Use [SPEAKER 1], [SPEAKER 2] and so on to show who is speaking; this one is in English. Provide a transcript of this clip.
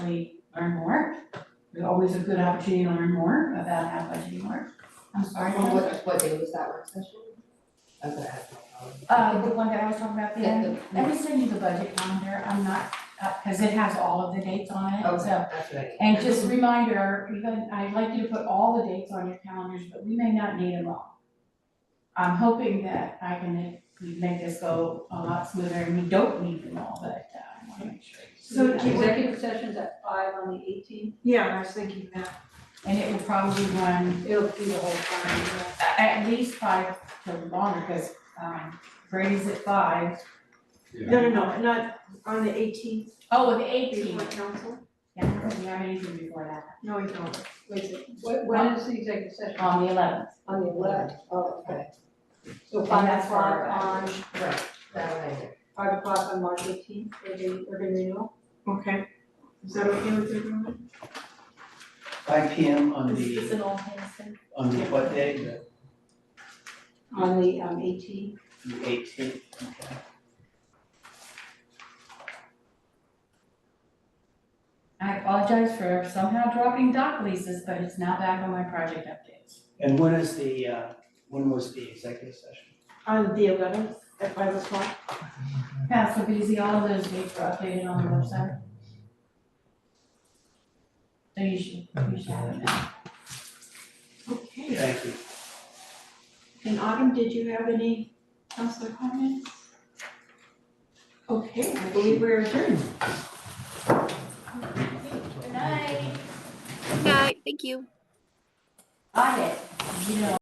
[SPEAKER 1] we learn more. There's always a good opportunity to learn more about how budgeting works. I'm sorry,
[SPEAKER 2] Well,
[SPEAKER 1] Ken.
[SPEAKER 2] what, what day was that work session? I was gonna ask my colleague.
[SPEAKER 1] Uh, the one that I was talking about, the
[SPEAKER 2] Yeah,
[SPEAKER 1] end,
[SPEAKER 2] the-
[SPEAKER 1] let me send you the budget calendar, I'm not, uh, cause it has all of the dates on it,
[SPEAKER 2] Okay,
[SPEAKER 1] so.
[SPEAKER 2] that's what I need.
[SPEAKER 1] And just a reminder, even, I'd like you to put all the dates on your calendars, but we may not need them all. I'm hoping that I can make, we make this go a lot smoother, and we don't need them all, but uh, I wanna make sure.
[SPEAKER 3] So
[SPEAKER 1] Yeah.
[SPEAKER 3] executive session's at five on the eighteenth,
[SPEAKER 4] Yeah, I was thinking that.
[SPEAKER 1] And it will probably run
[SPEAKER 3] it'll be the whole time,
[SPEAKER 1] a- at least five to longer, because um Brady's at five.
[SPEAKER 4] No, no, no, not on the eighteenth,
[SPEAKER 1] Oh, the
[SPEAKER 4] before
[SPEAKER 1] eighteenth,
[SPEAKER 4] council.
[SPEAKER 1] yeah, we have anything before that,
[SPEAKER 4] No, we don't.
[SPEAKER 3] wait, a second. What- when is the executive session?
[SPEAKER 1] on the eleventh,
[SPEAKER 3] On the eleventh, oh, okay. So
[SPEAKER 1] And
[SPEAKER 3] five
[SPEAKER 1] that's for
[SPEAKER 3] o'clock
[SPEAKER 1] our
[SPEAKER 3] on,
[SPEAKER 2] Right, that one I did.
[SPEAKER 3] five o'clock on March eighteenth, for the urban renewal,
[SPEAKER 4] Okay. Is that okay with everyone?
[SPEAKER 5] five P M on
[SPEAKER 6] This
[SPEAKER 5] the,
[SPEAKER 6] is an all hands thing.
[SPEAKER 5] on the what day, the
[SPEAKER 3] on the um eighteenth,
[SPEAKER 5] eighteenth, okay.
[SPEAKER 1] I apologize for somehow dropping dock leases, but it's now back on my project updates.
[SPEAKER 5] And when is the, uh, when was the executive session?
[SPEAKER 4] On the eleventh at five o'clock.
[SPEAKER 1] Yeah, so basically all of those dates are updated on the website. So you should, you should have it now.
[SPEAKER 4] Okay.
[SPEAKER 5] Thank you.
[SPEAKER 4] And Autumn, did you have any council comments? Okay, I believe we're adjourned.
[SPEAKER 1] Good night.
[SPEAKER 7] Good night. Thank you.
[SPEAKER 1] Audit, you know.